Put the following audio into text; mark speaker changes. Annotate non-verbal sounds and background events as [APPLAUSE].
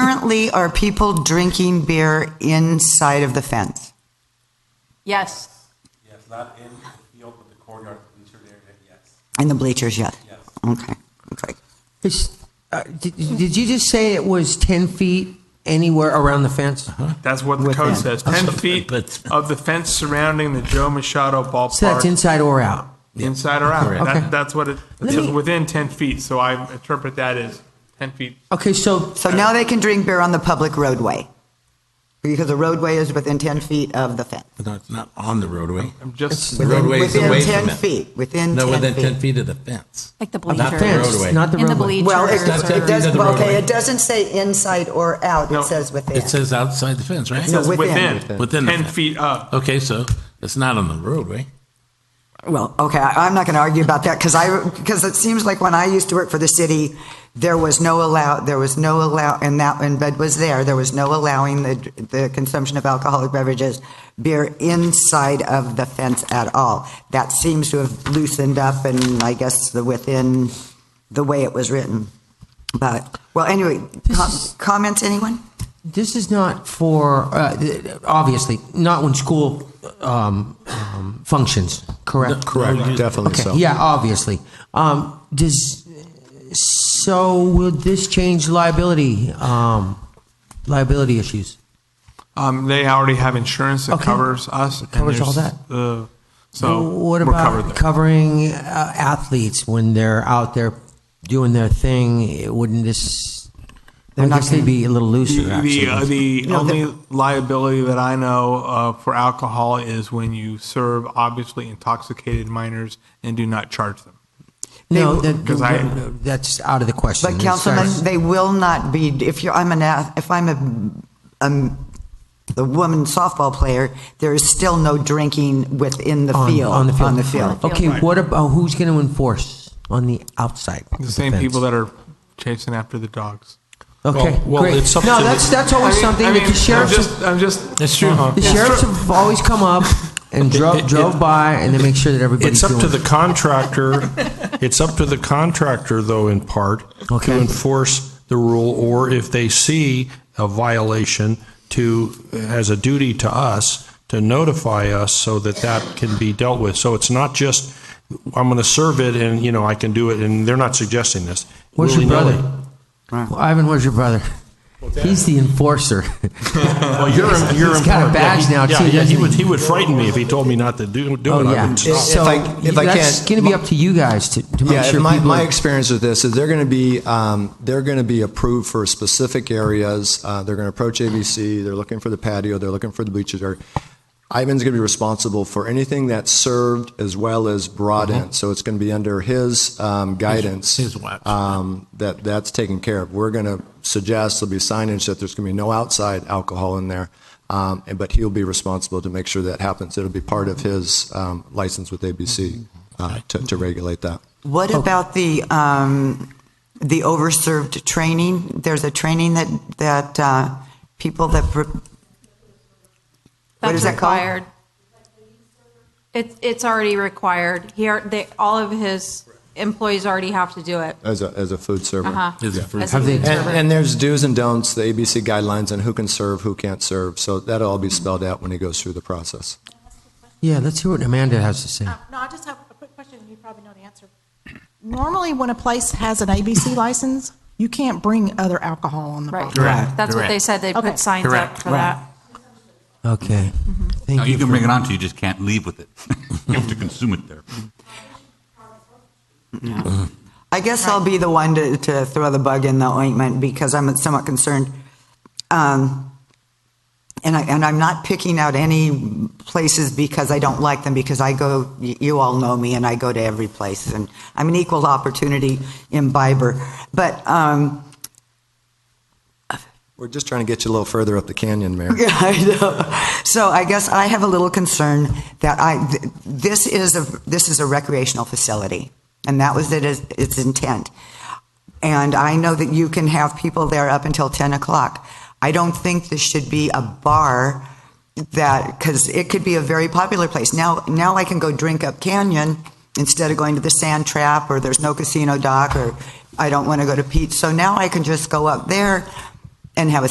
Speaker 1: Currently, are people drinking beer inside of the fence?
Speaker 2: Yes.
Speaker 3: Yes, not in the field, but the courtyard, the interior area, yes,
Speaker 1: In the bleachers yet?
Speaker 3: yes.
Speaker 1: Okay, okay.
Speaker 4: It's, uh, did, did you just say it was 10 feet anywhere around the fence?
Speaker 5: That's what the
Speaker 1: Within.
Speaker 5: code says, 10 feet
Speaker 6: But-
Speaker 5: of the fence surrounding the Joe Machado
Speaker 4: So that's
Speaker 5: ballpark,
Speaker 4: inside or out?
Speaker 5: inside or out.
Speaker 6: Correct.
Speaker 4: Okay.
Speaker 5: That- That's what it, it
Speaker 4: Let
Speaker 5: says
Speaker 4: me-
Speaker 5: within 10 feet, so I interpret that as 10 feet.
Speaker 4: Okay, so,
Speaker 1: So now they can drink beer on the public roadway? Because the roadway is within 10 feet of the fence.
Speaker 6: But no, it's not on the roadway.
Speaker 5: I'm just,
Speaker 6: The roadway is
Speaker 1: Within
Speaker 6: away
Speaker 1: 10
Speaker 6: from it.
Speaker 1: feet, within 10
Speaker 6: No, within 10
Speaker 1: feet.
Speaker 6: feet of the fence.
Speaker 2: Like the
Speaker 4: not the
Speaker 6: bleachers.
Speaker 4: fence,
Speaker 6: roadway.
Speaker 4: not the
Speaker 2: In the
Speaker 4: roadway.
Speaker 1: Well, it
Speaker 2: bleachers
Speaker 6: That's
Speaker 2: or-
Speaker 6: ten
Speaker 1: it does,
Speaker 6: feet of the
Speaker 1: well, okay,
Speaker 6: roadway.
Speaker 1: it doesn't say inside or out,
Speaker 5: No,
Speaker 1: it says within.
Speaker 6: It says outside the fence, right?
Speaker 1: It says within.
Speaker 5: within,
Speaker 6: Within the
Speaker 5: 10
Speaker 6: fence.
Speaker 5: feet up.
Speaker 6: Okay, so it's not on the roadway.
Speaker 1: Well, okay, I- I'm not going to argue about that because I, because it seems like when I used to work for the city, there was no allow, there was no allow, and that, and Bud was there, there was no allowing the, the consumption of alcoholic beverages, beer inside of the fence at all. That seems to have loosened up and I guess the within, the way it was written. But, well, anyway, com- comments, anyone?
Speaker 4: This is not for, uh, th- obviously, not when school um, um, functions, correct?
Speaker 7: Correct, definitely
Speaker 4: Okay,
Speaker 7: so.
Speaker 4: yeah, obviously. Um, does, so will this change liability, um, liability issues?
Speaker 5: Um, They already have insurance that
Speaker 4: Okay.
Speaker 5: covers us. and
Speaker 4: Covers all
Speaker 5: there's, uh, So
Speaker 4: What
Speaker 5: we're covered
Speaker 4: about
Speaker 5: there.
Speaker 4: covering uh, athletes when they're out there doing their thing? It Wouldn't this, I
Speaker 1: not
Speaker 4: guess they'd
Speaker 1: gonna-
Speaker 4: be a little looser,
Speaker 5: The,
Speaker 4: actually.
Speaker 5: the, uh, the only liability that I know uh, for alcohol is when you serve obviously intoxicated minors and do not charge them.
Speaker 4: No,
Speaker 1: They-
Speaker 4: that-
Speaker 5: 'Cause I-
Speaker 4: that's out of the question.
Speaker 1: But Councilman, they will not be, if you're, I'm an, ath- if I'm a, um, a woman softball player, there is still no drinking within the
Speaker 4: On-
Speaker 1: field.
Speaker 4: on the field.
Speaker 1: On the field.
Speaker 4: Okay, what about, who's going to enforce on the outside? of
Speaker 5: The same
Speaker 4: fence?
Speaker 5: people that are chasing after the dogs.
Speaker 4: Okay,
Speaker 7: Well- well,
Speaker 4: great.
Speaker 7: it's up
Speaker 4: No,
Speaker 7: to the-
Speaker 4: that's, that's always something that the sheriffs,
Speaker 5: I'm just, I'm just uh-huh.
Speaker 6: That's true.
Speaker 4: the sheriffs have always come up and drove,
Speaker 7: it-
Speaker 4: drove by and then make sure that everybody's
Speaker 7: It's
Speaker 4: doing.
Speaker 7: up to
Speaker 4: [LAUGHS]
Speaker 7: the contractor, it's up to the contractor, though, in part,
Speaker 4: Okay.
Speaker 7: to enforce the rule, or if they see a violation, to, as a duty to us, to notify us so that that can be dealt with. So it's not just, I'm going to serve it and, you know, I can do it, and they're not suggesting this.
Speaker 4: Where's your
Speaker 7: Willy-nilly.
Speaker 4: brother? Well, Ivan, where's your brother? He's the enforcer.
Speaker 7: Well, you're, you're.
Speaker 4: He's got a
Speaker 7: important. Yeah,
Speaker 4: badge
Speaker 7: he-
Speaker 4: now,
Speaker 7: yeah,
Speaker 4: too,
Speaker 7: yeah,
Speaker 4: doesn't
Speaker 7: he
Speaker 4: he?
Speaker 7: would, he would frighten me if he told me not to do, do it.
Speaker 4: Oh,
Speaker 7: I
Speaker 4: yeah.
Speaker 7: wouldn't stop.
Speaker 4: So
Speaker 8: I- if I
Speaker 4: that's
Speaker 8: can-
Speaker 4: going to be up to you guys to, to make
Speaker 8: yeah,
Speaker 4: sure
Speaker 8: my,
Speaker 4: people.
Speaker 8: my
Speaker 4: are-
Speaker 8: experience with this is they're going to be um, they're going to be approved for specific areas. Uh, they're going to approach ABC. They're looking for the patio. They're looking for the bleachers. Or Ivan's going to be responsible for anything that's served as well as brought
Speaker 4: Uh-huh.
Speaker 8: in. So it's going to be under his um, guidance.
Speaker 6: his watch.
Speaker 8: Um, that that's taken care of. We're going to suggest there'll be signage that there's going to be no outside alcohol in there. Um, and, but he'll be responsible to make sure that happens. It'll be part of his um, license with ABC uh, to, to regulate that.
Speaker 1: What about the, um, the overserved training? There's a training that, that, uh, people that, pr- What is
Speaker 2: That's
Speaker 1: that called?
Speaker 2: required. It's, it's already required. Here, they, all of his employees already have to do it.
Speaker 8: As a, as a food server.
Speaker 2: Uh-huh.
Speaker 6: Is it for-
Speaker 2: As
Speaker 4: Have
Speaker 2: a
Speaker 4: they-
Speaker 2: food
Speaker 8: And,
Speaker 2: server.
Speaker 8: and there's do's and don'ts, the ABC guidelines on who can serve, who can't serve. So that'll all be spelled out when he goes through the process.
Speaker 4: Yeah, let's hear what Amanda has to say.
Speaker 9: Uh, No, I just have a quick question, and you probably know the answer. Normally, when a place has an ABC license, you can't bring other alcohol on the property.
Speaker 2: Right. That's what
Speaker 6: Correct.
Speaker 2: they said. They put
Speaker 9: Correct.
Speaker 2: signs up for that.
Speaker 4: Okay. Thank
Speaker 10: No, you can
Speaker 4: for-
Speaker 10: bring it on to you, just can't leave with it. [LAUGHS] You have to consume it there.
Speaker 1: I guess I'll be the one to, to throw the bug in the ointment because I'm somewhat concerned. Um, and, I, and I'm not picking out any places because I don't like them because I go, y- you all know me and I go to every place and I'm an equal opportunity imbiber. But um,
Speaker 8: We're just trying to get you a little further up the canyon, Mayor.
Speaker 1: yeah, [LAUGHS] I know. So I guess I have a little concern that I, th- this is a, this is a recreational facility and that was it, is- its intent. And I know that you can have people there up until 10 o'clock. I don't think this should be a bar that, because it could be a very popular place. Now, now I can go drink up Canyon instead of going to the Sand Trap, or there's no casino dock, or I don't want to go to Pete's. So now I can just go up there and have a